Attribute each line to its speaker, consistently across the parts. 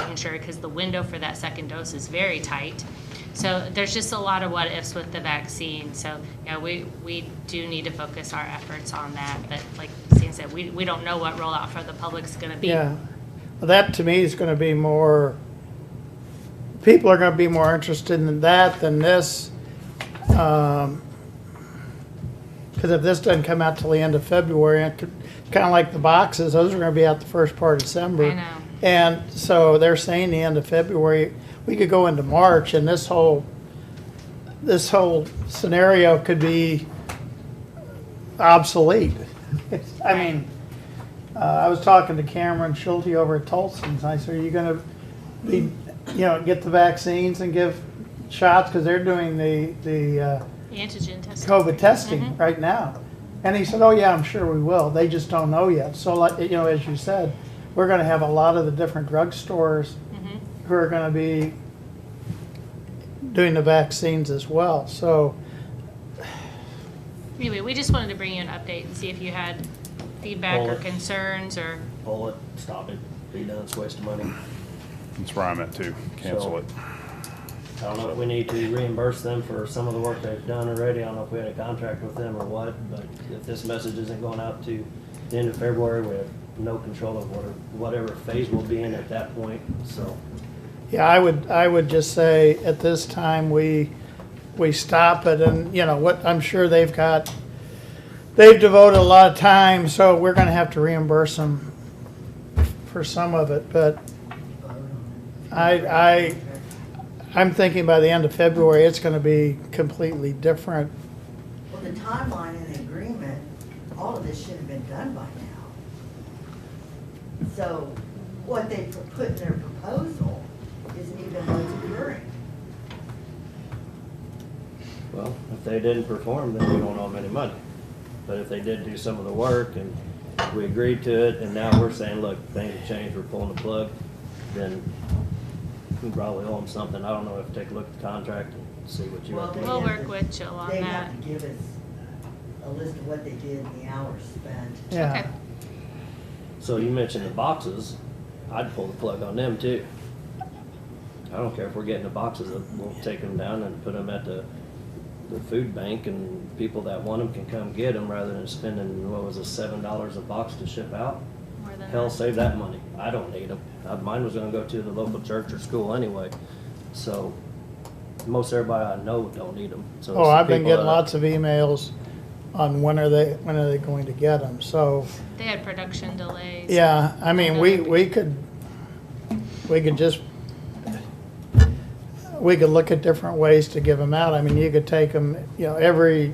Speaker 1: making sure, because the window for that second dose is very tight. So there's just a lot of what ifs with the vaccine. So, you know, we, we do need to focus our efforts on that. But like Stan said, we, we don't know what rollout for the public's gonna be.
Speaker 2: Yeah, Well, that to me is gonna be more, people are gonna be more interested in that than this. Um 'cause cause if this doesn't come out till the end of February, it could, kinda like the boxes, those are gonna be out the first part of December.
Speaker 1: I know.
Speaker 2: And so they're saying the end of February, we could go into March and this whole, this whole scenario could be obsolete. I mean, uh, I was talking to Cameron Schulte over at Tolson's, I said, are you gonna be, you know, get the vaccines and give shots? Cause they're doing the, the, uh,
Speaker 1: Antigen testing.
Speaker 2: COVID testing right now. And he said, oh yeah, I'm sure we will. They just don't know yet. So like, you know, as you said, we're gonna have a lot of the different drugstores who are gonna be doing the vaccines as well. So,
Speaker 1: Anyway, we just wanted to bring you an update and see if you had feedback or
Speaker 3: Well-
Speaker 1: concerns or,
Speaker 3: pull it, stop it, be done, it's a waste of money.
Speaker 4: That's where I'm at too. Cancel it.
Speaker 3: I don't know if we need to reimburse them for some of the work they've done already, I don't know if we had a contract with them or what, but if this message isn't going out to the end of February, we have no control of what, whatever phase we'll be in at that point, so.
Speaker 2: yeah, I would, I would just say at this time, we, we stop it and, you know, what, I'm sure they've got, they've devoted a lot of time, so we're gonna have to reimburse them for some of it, but I, I, I'm thinking by the end of February, it's gonna be completely different.
Speaker 5: Well, the timeline and the agreement, all of this should have been done by now. So what they put in their proposal isn't even what's occurring.
Speaker 3: Well, if they didn't perform, then we don't owe them any money. But if they did do some of the work and we agreed to it, and now we're saying, look, things have changed, we're pulling the plug, then we probably owe them something. I don't know if, take a look at the contract and see what you
Speaker 5: Well,
Speaker 3: want.
Speaker 5: they
Speaker 1: We'll
Speaker 5: have to-
Speaker 1: work with Jill on
Speaker 5: They
Speaker 1: that.
Speaker 5: have to give us a list of what they did and the hours spent.
Speaker 1: okay.
Speaker 2: Yeah,
Speaker 3: So you mentioned the boxes, I'd pull the plug on them too. I don't care if we're getting the boxes, we'll take them down and put them at the, the food bank and people that want them can come get them rather than spending, what was it, seven dollars a box to ship out?
Speaker 1: more than
Speaker 3: Hell,
Speaker 1: that.
Speaker 3: save that money. I don't need them. Mine was gonna go to the local church or school anyway, so most everybody I know don't need them. So uh,
Speaker 2: oh, I've been getting lots of emails on when are they, when are they going to get them, so.
Speaker 1: They had production delays.
Speaker 2: Yeah, I mean, we, we could, we could just, we could look at different ways to give them out. I mean, you could take them, you know, every,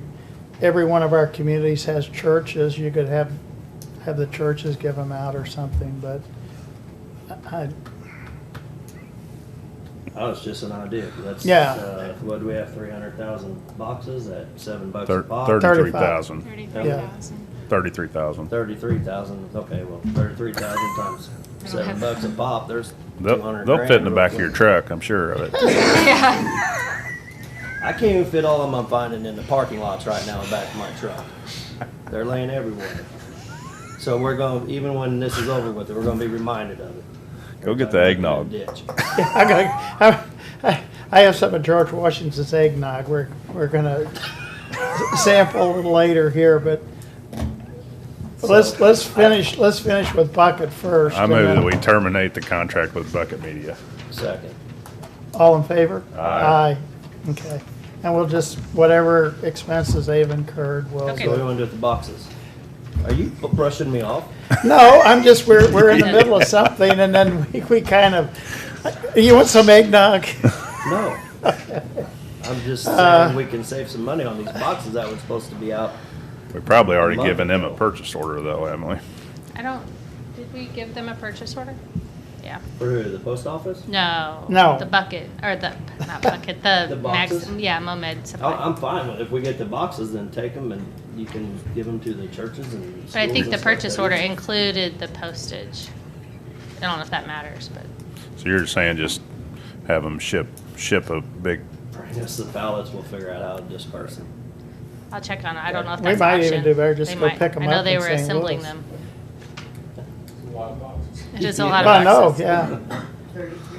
Speaker 2: every one of our communities has churches. You could have, have the churches give them out or something, but I,
Speaker 3: That was oh, just an idea. That's,
Speaker 2: Yeah.
Speaker 3: uh, what, do we have three hundred thousand boxes at seven bucks a
Speaker 4: Thir-
Speaker 3: pop?
Speaker 4: Thirty-three thousand.
Speaker 1: Thirty-three thousand.
Speaker 4: Thirty-three thousand.
Speaker 3: Thirty-three thousand, okay, well, thirty-three thousand times
Speaker 1: don't
Speaker 3: seven
Speaker 1: have-
Speaker 3: bucks a pop, there's two
Speaker 4: They'll,
Speaker 3: hundred
Speaker 4: they'll fit in the back of your truck, I'm sure of it.
Speaker 1: Yeah,
Speaker 3: I can't even fit all of them I'm finding in the parking lots right now in back of my truck. They're laying everywhere. So we're going, to even when this is over with, we're gonna be reminded of it.
Speaker 4: Go get the eggnog.
Speaker 3: Ditch.
Speaker 2: I got, I, I have some of George Washington's eggnog. We're, we're gonna sample a little later here, but let's,
Speaker 3: So-
Speaker 2: let's finish, let's finish with Bucket first.
Speaker 4: I
Speaker 2: and
Speaker 4: move
Speaker 2: then-
Speaker 4: that we terminate the contract with Bucket Media.
Speaker 3: Second.
Speaker 2: All in favor? Aye.
Speaker 4: Aye.
Speaker 2: Okay. And we'll just, whatever expenses they've incurred, we'll.
Speaker 1: Okay.
Speaker 3: So what do you wanna do with the boxes? Are you b- brushing me off?
Speaker 2: No, I'm just, we're, we're in the middle of something and then we, we kind of, you want some eggnog?
Speaker 3: No. I'm just saying we can save some money on these
Speaker 4: Uh.
Speaker 3: boxes that were supposed to be out.
Speaker 4: We've probably already
Speaker 3: Love
Speaker 4: given them a
Speaker 3: it.
Speaker 4: purchase order though, haven't we?
Speaker 1: I don't, did we give them a purchase order? Yeah.
Speaker 3: For who, the post office?
Speaker 1: No.
Speaker 2: No.
Speaker 1: The bucket, or the, not bucket, the.
Speaker 3: The
Speaker 1: max-
Speaker 3: boxes?
Speaker 1: Yeah, Momed
Speaker 3: I-
Speaker 1: supply.
Speaker 3: I'm fine with, if we get the boxes, then take them and you can give them to the churches and schools
Speaker 1: But I think
Speaker 3: and
Speaker 1: the
Speaker 3: stuff
Speaker 1: purchase
Speaker 3: that-
Speaker 1: order included the postage. I don't know if that matters, but
Speaker 4: So you're saying just have them ship, ship a big,
Speaker 3: Bring us the ballots, we'll figure out how to disperse them.
Speaker 1: I'll check on it. I don't know if
Speaker 2: We
Speaker 1: that's
Speaker 2: might even
Speaker 1: auction.
Speaker 2: do better, just
Speaker 1: They
Speaker 2: go
Speaker 1: might.
Speaker 2: pick 'em
Speaker 1: I know
Speaker 2: up
Speaker 1: they
Speaker 2: in
Speaker 1: were
Speaker 2: St.
Speaker 1: assembling
Speaker 2: Louis.
Speaker 1: them.
Speaker 6: A lot of boxes.
Speaker 1: It is a lot of
Speaker 2: I know,
Speaker 1: boxes.
Speaker 2: yeah.
Speaker 5: thirty-three